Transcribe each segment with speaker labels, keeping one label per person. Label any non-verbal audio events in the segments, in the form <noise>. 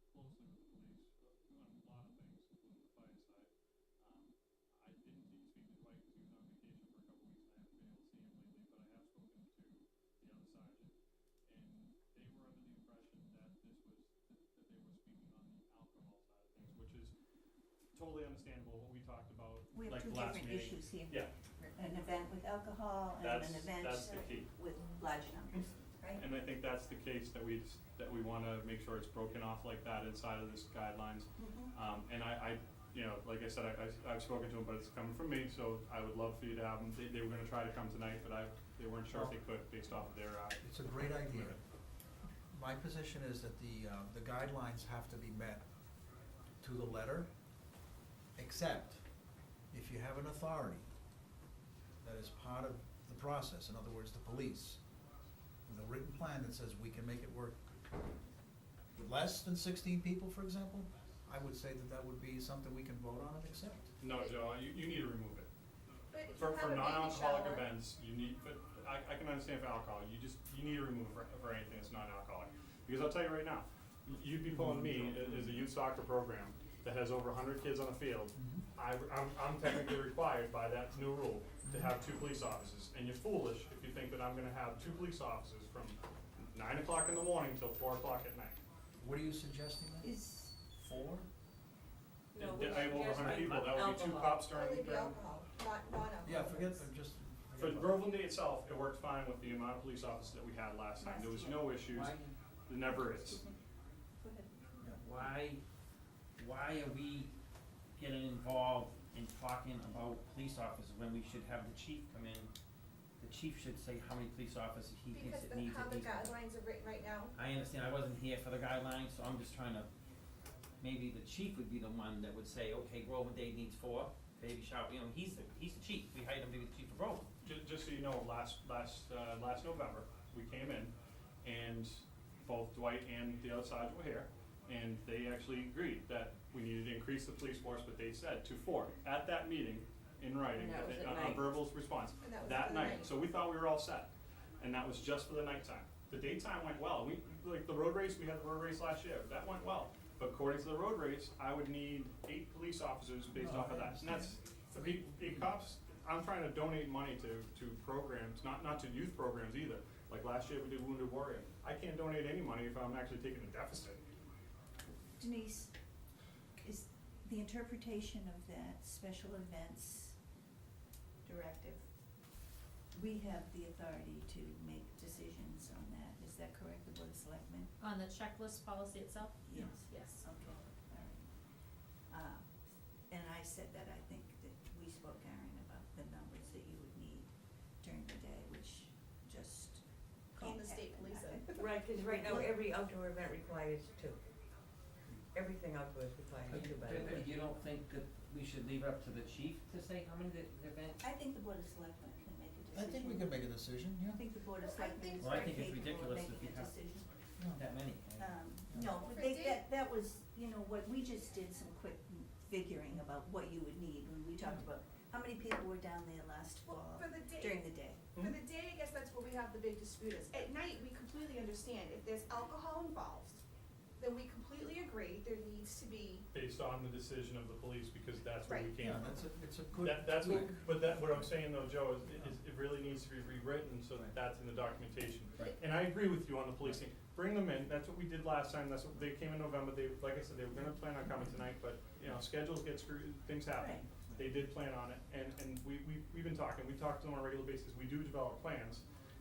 Speaker 1: Um, totally understandable what we talked about,
Speaker 2: We have
Speaker 1: like
Speaker 2: two
Speaker 1: last
Speaker 2: different
Speaker 1: meeting.
Speaker 2: issues here.
Speaker 1: Yeah.
Speaker 2: An event with alcohol and
Speaker 1: That's,
Speaker 2: an event
Speaker 1: that's the key.
Speaker 2: with large numbers, right?
Speaker 1: And I think that's the case that we, just- that we wanna make sure it's broken off like that inside of this guidelines.
Speaker 2: Mm-hmm.
Speaker 1: Um, and I, I, you know, like I said, I, I, I've spoken to them, but it's coming from me, so I would love for you to have them. They, they were gonna try to come tonight, but I, they weren't sure if they could based off of their, uh,
Speaker 3: It's a great idea. My position is that the, uh, the guidelines have to be met to the letter, except if you have an authority that is part of the process, in other words, the police, with a written plan that says we can make it work with less than sixteen people, for example, I would say that that would be something we can vote on and accept.
Speaker 1: no, Joe, you, you need to remove it.
Speaker 4: But if
Speaker 1: For, for
Speaker 4: you have a baby
Speaker 1: non-alcoholic
Speaker 4: shower-
Speaker 1: events, you need, but I, I can understand for alcohol, you just, you need to remove for, for anything that's non-alcoholic. Because I'll tell you right now, y- you'd be pulling me, a- as a youth soccer program that has over hundred kids on the field,
Speaker 3: Mm-hmm.
Speaker 1: I, I'm, I'm technically required by that new rule to have two police officers, and you're foolish if you think that I'm gonna have two police officers from nine o'clock in the morning till four o'clock at night.
Speaker 3: What are you suggesting then?
Speaker 2: Is,
Speaker 3: Four?
Speaker 4: No,
Speaker 1: Th-
Speaker 4: we
Speaker 1: I have
Speaker 4: should
Speaker 1: over
Speaker 4: just
Speaker 1: hundred
Speaker 4: make
Speaker 1: people, that would be two
Speaker 4: alcohol.
Speaker 1: cops
Speaker 4: Only
Speaker 1: during,
Speaker 4: the
Speaker 1: during,
Speaker 4: alcohol, not, not alcohol.
Speaker 3: Yeah, forget, I'm just.
Speaker 1: For
Speaker 3: forget about it.
Speaker 1: Groveland Day itself, it worked fine with the amount of police officers that we had last time. There was no issues.
Speaker 5: Why,
Speaker 1: There never is.
Speaker 2: go ahead.
Speaker 3: Yeah.
Speaker 5: why, why are we getting involved in talking about police officers when we should have the chief come in? The chief should say how many police officers he thinks
Speaker 4: Because
Speaker 5: it
Speaker 4: the,
Speaker 5: needs
Speaker 4: how
Speaker 5: at
Speaker 4: the
Speaker 5: least.
Speaker 4: guidelines are written right now,
Speaker 5: I understand, I wasn't here for the guidelines, so I'm just trying to, maybe the chief would be the one that would say, okay, Groveland Day needs four, baby shower, you know, he's the, he's the chief, we hired him to be the chief of Groveland.
Speaker 1: Ju- just so you know, last, last, uh, last November, we came in and both Dwight and the other side were here. And they actually agreed that we needed to increase the police force, but they said to four at that meeting in writing,
Speaker 6: And that was at
Speaker 1: on- on
Speaker 6: night.
Speaker 1: verbal response.
Speaker 4: And that was at
Speaker 1: That
Speaker 4: the
Speaker 1: night,
Speaker 4: night.
Speaker 1: so we thought we were all set. And that was just for the nighttime. The daytime went well. We, like the road race, we had the road race last year, that went well. But according to the road race, I would need eight police officers based
Speaker 3: No,
Speaker 1: off of
Speaker 3: I
Speaker 1: that. And that's, the, the cops, I'm trying to donate money to, to programs, not, not to youth programs either. Like last year, we did Wounded Warrior. I can't donate any money if I'm actually taking a deficit.
Speaker 2: Denise, is the interpretation of that special events directive, we have the authority to make decisions on that, is that correct, the board of selectmen?
Speaker 7: On the checklist policy itself?
Speaker 2: Yes.
Speaker 7: Yes.
Speaker 2: Okay, all right. Uh, and I said that I think that we spoke, Aaron, about the numbers that you would need during the day, which just
Speaker 4: Call
Speaker 2: can't
Speaker 4: the state
Speaker 2: happen.
Speaker 4: police
Speaker 2: I-
Speaker 6: <laughs>
Speaker 4: in.
Speaker 6: Right, because right
Speaker 4: <laughs>
Speaker 6: now, every outdoor event requires two. Everything outdoors requires two, by the way.
Speaker 5: You don't think that we should leave it up to the chief to say how many the, the event?
Speaker 2: I think the board of selectmen can make a decision.
Speaker 3: I think we can make a decision,
Speaker 2: I
Speaker 3: yeah.
Speaker 2: think the board of
Speaker 4: Well, I
Speaker 2: selectmen
Speaker 4: think-
Speaker 2: is
Speaker 5: Well, I
Speaker 2: very
Speaker 5: think
Speaker 2: capable
Speaker 5: it's
Speaker 2: of
Speaker 5: ridiculous
Speaker 2: making
Speaker 5: if you
Speaker 2: a
Speaker 5: have-
Speaker 2: decision.
Speaker 3: Yeah.
Speaker 5: Not that many. I-
Speaker 2: Um, no,
Speaker 4: For
Speaker 2: but they,
Speaker 4: date-
Speaker 2: that, that was, you know, what, we just did some quick figuring about what you would need when we talked about how many people were down there last
Speaker 4: Mm-hmm. Well,
Speaker 2: fall
Speaker 4: for the date.
Speaker 2: during the day.
Speaker 6: Hmm?
Speaker 4: for the day, I guess that's where we have the big dispute is, at night, we completely understand, if there's alcohol involved, then we completely agree, there needs to be,
Speaker 1: Based on the decision of the police, because that's where we
Speaker 4: Right.
Speaker 1: came
Speaker 3: Yeah,
Speaker 1: from.
Speaker 3: that's a, it's a good.
Speaker 1: That, that's what,
Speaker 3: tweak.
Speaker 1: but that, what I'm saying though, Joe, is, is it really needs to be rewritten so that that's in the documentation.
Speaker 5: Right.
Speaker 1: And I agree with you on the policing, bring them in, that's what we did last time, that's what, they came in November, they, like I said, they were gonna plan on coming tonight, but, you know, schedules get screwed, things happen.
Speaker 2: Right.
Speaker 1: They did plan on it, and, and we, we, we've been talking, we talk to them on a regular basis, we do develop plans,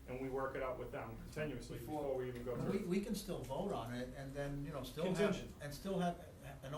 Speaker 1: and we work it out with them continuously
Speaker 3: Before-
Speaker 1: before we even go
Speaker 3: We,
Speaker 1: through.
Speaker 3: we can still vote on it and then, you know, still have,
Speaker 1: Contingent.
Speaker 3: and still have,